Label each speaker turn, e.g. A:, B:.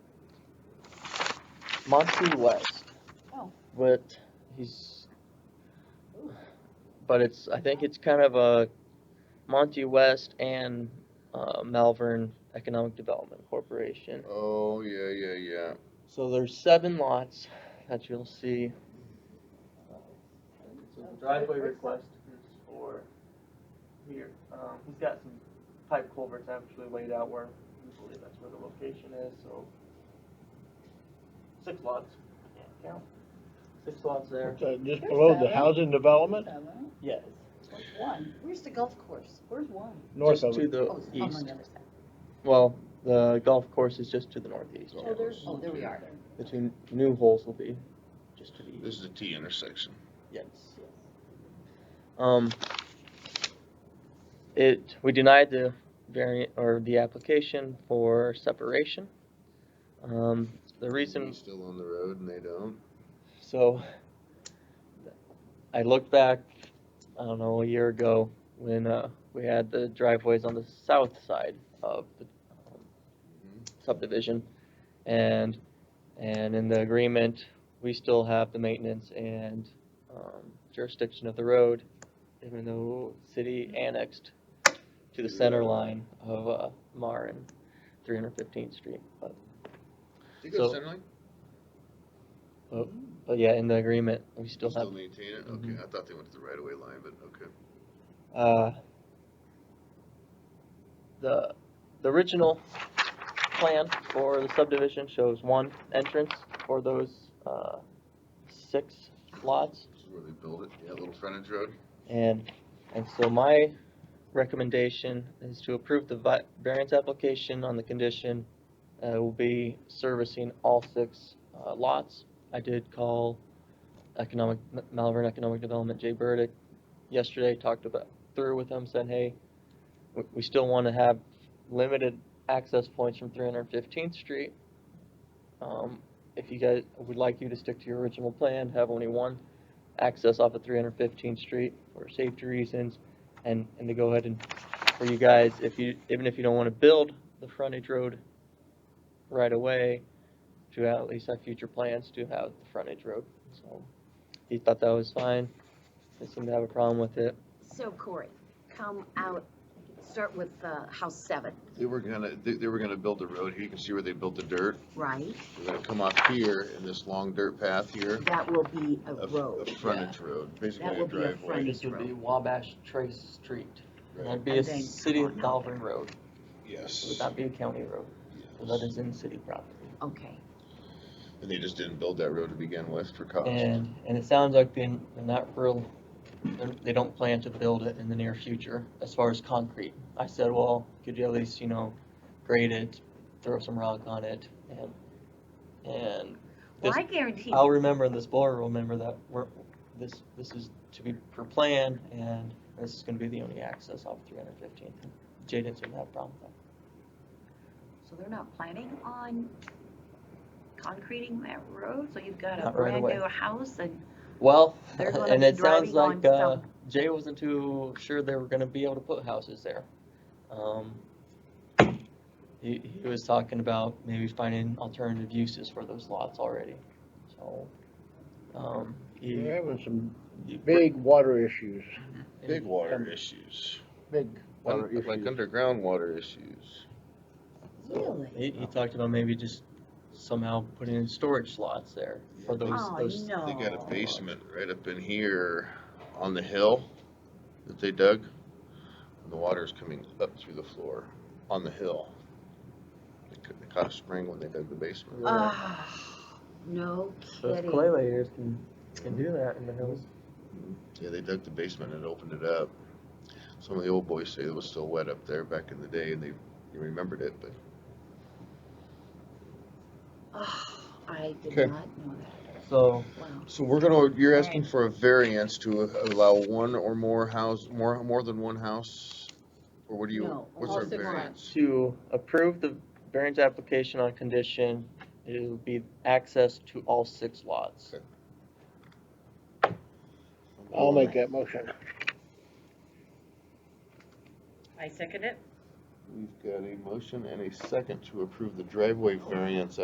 A: Monty West.
B: Oh.
A: But he's, but it's, I think it's kind of a Monty West and, uh, Malvern Economic Development Corporation.
C: Oh, yeah, yeah, yeah.
A: So there's seven lots that you'll see. So the driveway request is for here, um, he's got some pipe culverts actually laid out where, we believe that's where the location is, so. Six lots, yeah, six lots there.
D: Uh, Just below the housing development,
B: Seven,
A: Yes.
B: Where's one? Where's the golf course? Where's one?
D: north
A: Just
D: of
A: To
D: it.
B: Oh, it's on
A: the Uh, east,
B: the other side.
A: well, the golf course is just to the northeast,
C: Golf
B: Oh, there's, oh,
C: course.
B: there we are.
A: the two new holes will be just to the east.
C: This is a T intersection.
A: Yes. Um, it, we denied the variant, or the application for separation. Um, the reason,
C: He's Still on the road and they don't.
A: so, I looked back, I don't know, a year ago, when, uh, we had the driveways on the south side of the um, subdivision. And, and in the agreement, we still have the maintenance and um, jurisdiction of the road, even though city annexed to the center line of uh, Mar and three hundred fifteenth street. But,
C: Do you go
A: So-
C: Centerlink?
A: but yeah, in the agreement, we still have,
C: Still maintain it?
A: Mm-hmm.
C: Okay, I thought they went to the right of way line, but okay.
A: uh, the, the original plan for the subdivision shows one entrance for those, uh, six lots.
C: This is where they build it. Yeah, little frontage road.
A: And, and so my recommendation is to approve the vi- variance application on the condition, uh, will be servicing all six, uh, lots. I did call economic, M- Malvern Economic Development, Jay Burdick, yesterday, talked about, through with him, said, hey, we, we still wanna have limited access points from three hundred fifteenth street. Um, if you guys, we'd like you to stick to your original plan, have only one access off of 315th Street for safety reasons, and, and to go ahead and, for you guys, if you, even if you don't want to build the frontage road right away, to at least have future plans to have the frontage road, so he thought that was fine, they seemed to have a problem with it.
E: So Corey, come out, start with uh, house seven,
C: They were gonna, they, they were gonna build the road here. You can see where they built the dirt.
E: right?
C: They're gonna come off here in this long dirt path here.
E: That will be a
C: A, a
E: road.
C: frontage road, basically a
E: will be a
C: driveway.
E: frontage.
A: This would be
E: road.
A: Wabash Trace Street, and
C: Right,
A: that'd be a
E: And then
A: city of
E: come on up.
A: Malvern road, it would
C: Yes.
A: not be a county road, so that is in city property.
E: Okay,
C: And they just didn't build that road to begin with for cost.
A: And, and it sounds like they're, they're not real, they're- they don't plan to build it in the near future as far as concrete. I said, well, could you at least, you know, grade it, throw some rock on it and, and
E: well,
A: this-
E: I guarantee,
A: I'll remember and this board will remember that we're, this, this is to be per plan and this is gonna be the only access off three hundred fifteenth. Jay didn't seem to have a problem with
E: so they're not planning on concreting that road, so you've got a
A: Not right
E: brand
A: away.
E: new house and,
A: that. Well,
E: They're gonna
A: and
E: be
A: it sounds
E: driving on
A: like, uh,
E: some-
A: Jay wasn't too sure they were gonna be able to put houses there. Um, he, he was talking about maybe finding alternative uses for those lots already, so, um, he.
D: We're having some
A: he-
D: big water issues,
C: Big water
D: Um,
C: issues.
D: big water
C: Un- Like
D: issues.
C: underground water issues.
A: so
E: really?
A: He, he talked about maybe just somehow putting in storage slots there for
C: Yeah,
A: those,
E: Oh,
A: those.
E: no.
C: They got a basement right up in here on the hill that they dug. And the water's coming up through the floor on the hill. They ca- They caught a spring when they dug the basement.
E: Ah, no
A: Those
E: kidding.
A: clay layers can, can do that in the hills.
C: Yeah, they dug the basement and opened it up. Some of the old boys say it was still wet up there back in the day and they, they remembered it, but
E: Ah, I did
C: Okay.
E: not know
A: So,
E: that, wow.
C: So we're gonna, you're
B: Right.
C: asking for a variance to allow one or more house, more, more than one house? Or what do you,
E: No,
C: what's
E: all
C: our
E: six
C: variance?
A: to approve the variance application on condition, it'll be access to all six lots.
D: I'll make that motion.
B: I second it.
C: We've got a motion and a second to approve the driveway variance